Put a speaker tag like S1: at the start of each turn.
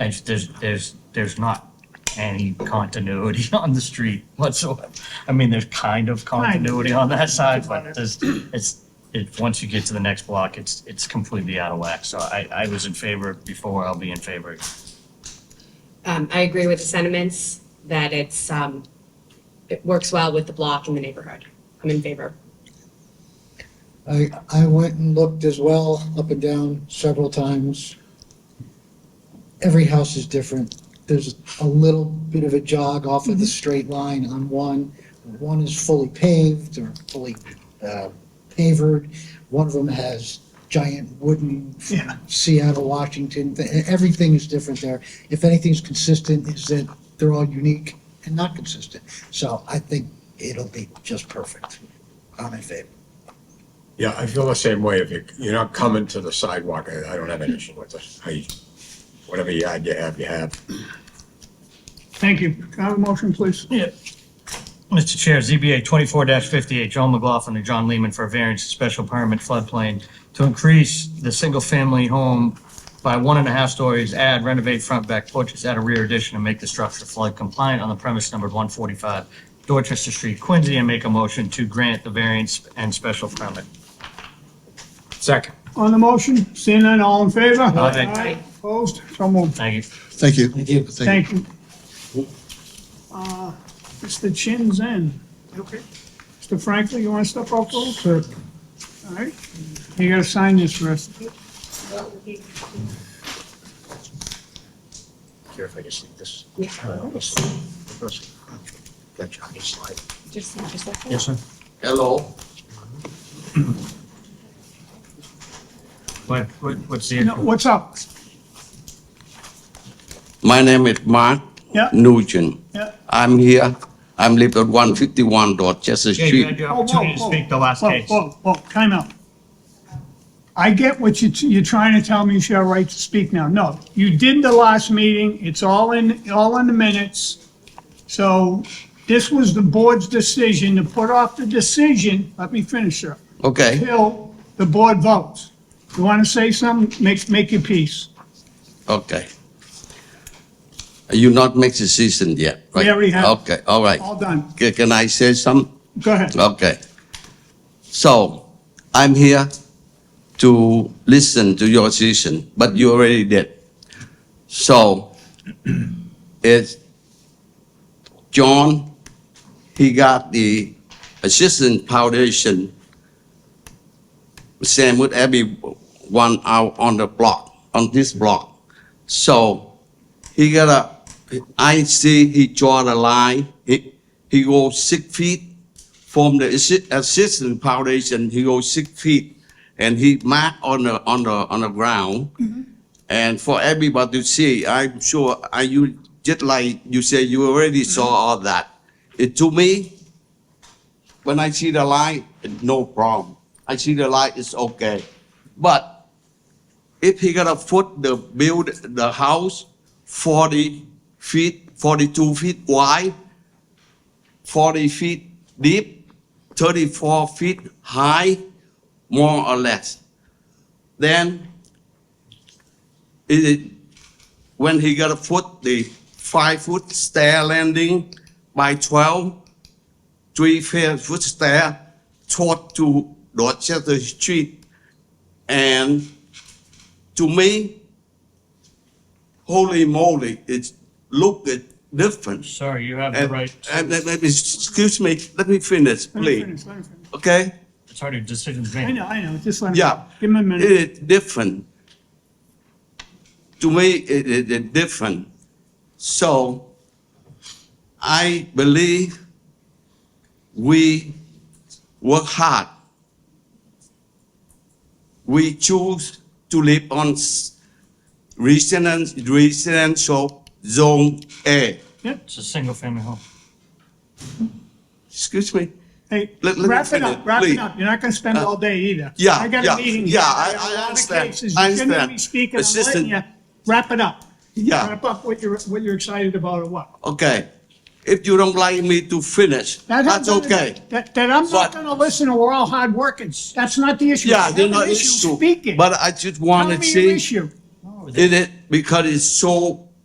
S1: It's, there's, there's, there's not any continuity on the street whatsoever. I mean, there's kind of continuity on that side, but there's, it's, it, once you get to the next block, it's, it's completely out of whack. So I, I was in favor before, I'll be in favor.
S2: Um, I agree with the sentiments that it's, um, it works well with the block and the neighborhood. I'm in favor.
S3: I, I went and looked as well, up and down several times. Every house is different. There's a little bit of a jog off of the straight line on one. One is fully paved or fully uh, pavered. One of them has giant wooden Seattle, Washington, thi- everything is different there. If anything's consistent, is that they're all unique and not consistent. So I think it'll be just perfect. I'm in favor.
S4: Yeah, I feel the same way. If you, you're not coming to the sidewalk, I, I don't have an issue with it. I, whatever yard you have, you have.
S5: Thank you. Can I have a motion, please?
S1: Mr. Chair, ZBA twenty-four fifty-eight, John McLaughlin and John Lehman for a variance and special permit floodplain to increase the single-family home by one and a half stories, add renovate front back porches, add a rear addition, and make the structure flood compliant on the premise numbered one forty-five Dorchester Street, Quincy, and make a motion to grant the variance and special permit.
S4: Second.
S5: On the motion, seeing none, all in favor?
S1: Aye.
S5: Opposed? So moved.
S1: Thank you.
S6: Thank you.
S3: Thank you.
S5: Thank you. Uh, Mr. Chin Zen. Okay. Mr. Franklin, you want to step up, please? Sure. All right. You got to sign this for us.
S4: Here, if I just leave this.
S2: Yeah.
S4: That Johnny slide.
S2: Just, just like that.
S1: Yes, sir.
S7: Hello,
S1: What, what, what's the?
S5: No, What's up?
S7: my name is Mark
S5: Yeah.
S7: Nugent.
S5: Yeah.
S7: I'm here. I'm live at 151 Dorchester
S1: Yeah, you had
S7: Street.
S1: your
S5: Whoa, whoa,
S1: opportunity to
S5: whoa.
S1: speak the last
S5: Whoa,
S1: case.
S5: Whoa, whoa, time out. I get what you, you're trying to tell me you should have a right to speak now. No, you did the last meeting, it's all in, all in the minutes. So this was the board's decision to put off the decision, let me finish, sir,
S7: Okay,
S5: till the board votes. You want to say something, make, make your peace.
S7: okay. You not make decision yet, right?
S5: We already have.
S7: Okay, all right.
S5: All done,
S7: Ca- Can I say some?
S5: go ahead.
S7: Okay. So I'm here to listen to your decision, but you already did. So it's John, he got the assistant foundation same with everyone out on the block, on this block. So he got a, I see he draw the line, he, he go six feet from the assi- assistant foundation, he goes six feet, and he mark on the, on the, on the ground. And for everybody to see, I'm sure, I, you, just like you say, you already saw all that. It, to me, when I see the light, no problem. I see the light, it's okay. But if he gonna foot the build, the house forty feet, forty-two feet wide, 40 feet deep, 34 feet high, more or less. Then, it, when he got a foot, the five-foot stair landing by 12, three-foot stair toward to Dorchester Street. And to me, holy moly, it looked different.
S1: Sorry, you have the
S7: And,
S1: right.
S7: and let, let me, excuse me, let me finish,
S5: Let me
S7: please.
S5: finish, let me finish.
S7: Okay?
S1: It's already decisions
S5: I
S1: made.
S5: know, I know, just let him.
S7: Yeah.
S5: Give him a minute.
S7: It is different. To me, it is it different. So I believe we work hard. We choose to live on s- residence, residential zone A.
S1: It's a single-family home.
S7: Excuse me?
S5: Hey,
S7: Let- let me
S5: wrap it up,
S7: finish,
S5: wrap it
S7: please. Uh,
S5: up. You're not gonna spend all day either.
S7: yeah,
S5: I got
S7: yeah,
S5: a meeting.
S7: yeah,
S5: here.
S7: I-
S5: got a
S7: I
S5: lot of
S7: understand.
S5: cases.
S7: I
S5: You shouldn't be
S7: understand.
S5: speaking. I'm letting
S7: Assistant-
S5: you. Wrap it up.
S7: Yeah.
S5: Wrap up what you're, what you're excited about or what.
S7: Okay, if you don't like me to finish,
S5: That has
S7: that's
S5: nothing-
S7: okay.
S5: That, that I'm not
S7: But-
S5: gonna listen and we're all hard working. That's not the issue.
S7: Yeah,
S5: It's
S7: you
S5: not
S7: know,
S5: an
S7: issue,
S5: Speaking.
S7: but I just
S5: Tell
S7: want
S5: me
S7: to
S5: your
S7: see,
S5: issue.
S7: it is, because it's so